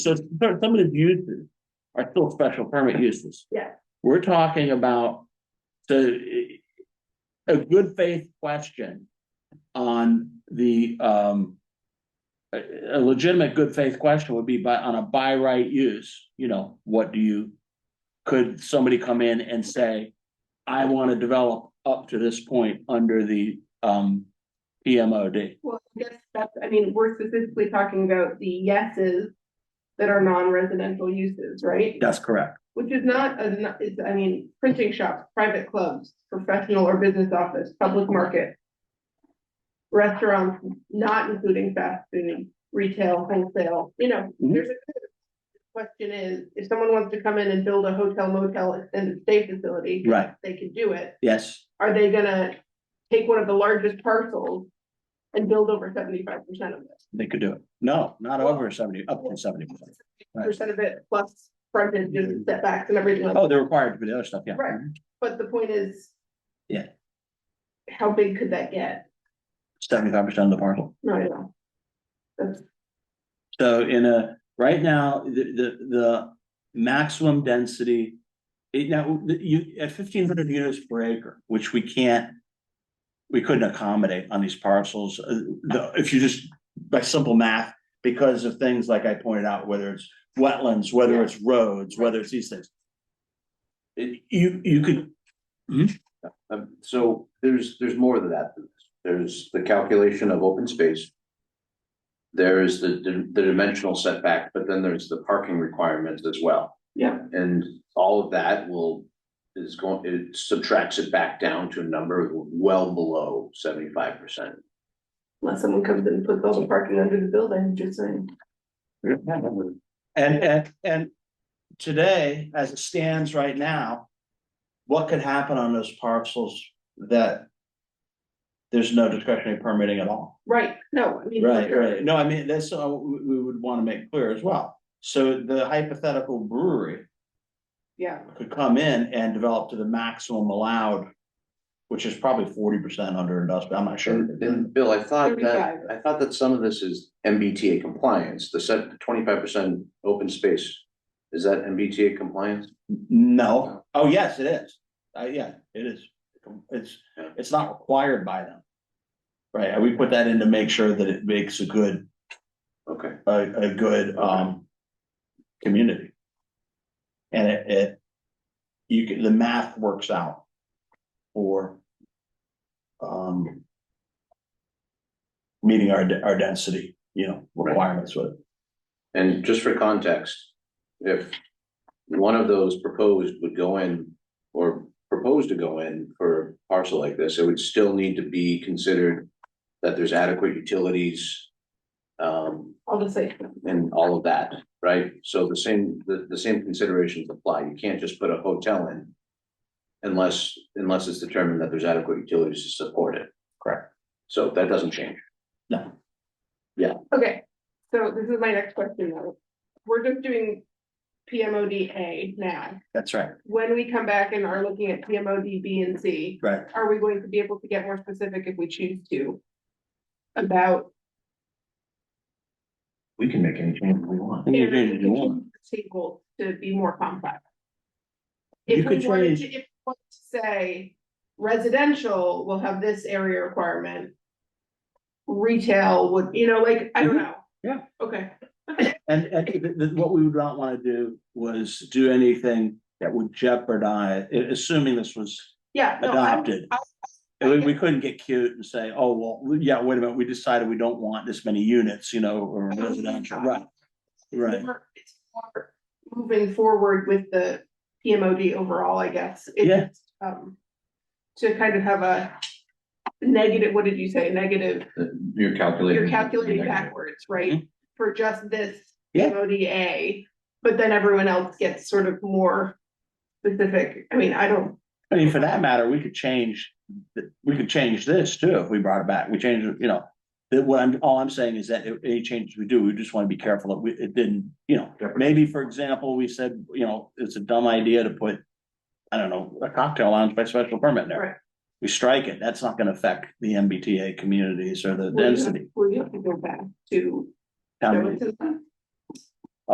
So some some of the uses are still special permit uses. Yeah. We're talking about the a good faith question on the um. A a legitimate good faith question would be by on a by right use, you know, what do you? Could somebody come in and say, I want to develop up to this point under the um PMOD? Well, I guess that's, I mean, we're specifically talking about the yeses that are non-residential uses, right? That's correct. Which is not, a- not- it's, I mean, printing shops, private clubs, professional or business office, public market. Restaurants, not including fast food, retail, wholesale, you know, Mhm. there's a. Question is, if someone wants to come in and build a hotel motel extended stay facility, Right, they can do it. yes, are they gonna take one of the largest parcels and build over seventy-five percent of it? they could do it. No, not over seventy, up to seventy percent. Right. Percent of it plus frontage and setbacks and everything like Oh, that, they're required to do the other stuff, yeah. Right. but the point is. Yeah. How big could that get? Seventy-five percent of the parcel. No, I know. That's, So in a, right now, the, the, the maximum density. It now, the- you, at fifteen hundred units per acre, which we can't. We couldn't accommodate on these parcels, uh, the, if you just, by simple math, because of things like I pointed out, whether it's wetlands, whether Yeah. it's roads, whether it's these things. It- You, you could Um, so there's, there's more than that. than this. There's the calculation of open space. There is the, the- the dimensional setback, but then there's the parking requirements as well. yeah, And all of that will, is going, it subtracts it back down to a number well below seventy-five percent. unless someone comes in and puts all the parking under the building, just saying. And, and, and today, as it stands right now, what could happen on those parcels that there's no discretionary permitting at all? Right, no, I mean. Right, right. No, I mean, that's, uh, we, we would want to make clear as well. So the hypothetical brewery Yeah, could come in and develop to the maximum allowed, which is probably forty percent under industrial, I'm not sure. And, and Bill, I thought that, 35. I thought that some of this is MBTA compliance, the set, twenty-five percent open space. Is that MBTA compliance? No, oh, yes, it is. Uh, yeah, it is. It's, Yeah. it's not required by them. Right, and we put that in to make sure that it makes a good, Okay, a, a good, um, community. And it, it, you can, the math works out for, um, meeting our, de- our density, you know, requirements with it. and just for context, if one of those proposed would go in or proposed to go in for a parcel like this, it would still need to be considered that there's adequate utilities um, I'll just say, and all of that, right? So the same, the, the same considerations apply. You can't just put a hotel in unless, unless it's determined that there's adequate utilities to support it. Correct. So that doesn't change. okay, so this is my next question though. We're just doing PMODA now. That's right. when we come back and are looking at PMOD, B, and C, Right. are we going to be able to get more specific if we choose to? About. We can make any change we want. You can change it if you want. Table to be more complex. You If could we wanted change- to, if we want to say residential will have this area requirement. Retail would, you know, like, I don't know. Mm-hmm. Yeah. Okay, And, and th- th- what we would not wanna do was do anything that would jeopardize, a- assuming this was yeah. no, I'm- adopted. I- And we, we couldn't get cute and say, oh, well, yeah, wait a minute, we decided we don't want this many units, you know, or residential, right? Right, more- It's more moving forward with the PMOD overall, I guess. It's, Yeah. Um, to kind of have a negative, what did you say, negative, You're calculating. you're calculating backwards, right? For just this Mm-hmm. Yeah. PMODA, but then everyone else gets sort of more specific. I mean, I don't, I mean, for that matter, we could change, th- we could change this too, if we brought it back, we changed, it, you know. That what I'm, all I'm saying is that if any changes we do, we just wanna be careful that we, it didn't, you know, maybe, for example, we said, you know, it's a dumb idea to put. I don't know, a cocktail lounge by special permit Right. there, we strike it, that's not gonna affect the MBTA communities or the Well, yeah. density. well, you have to go back to. town There meeting. was a-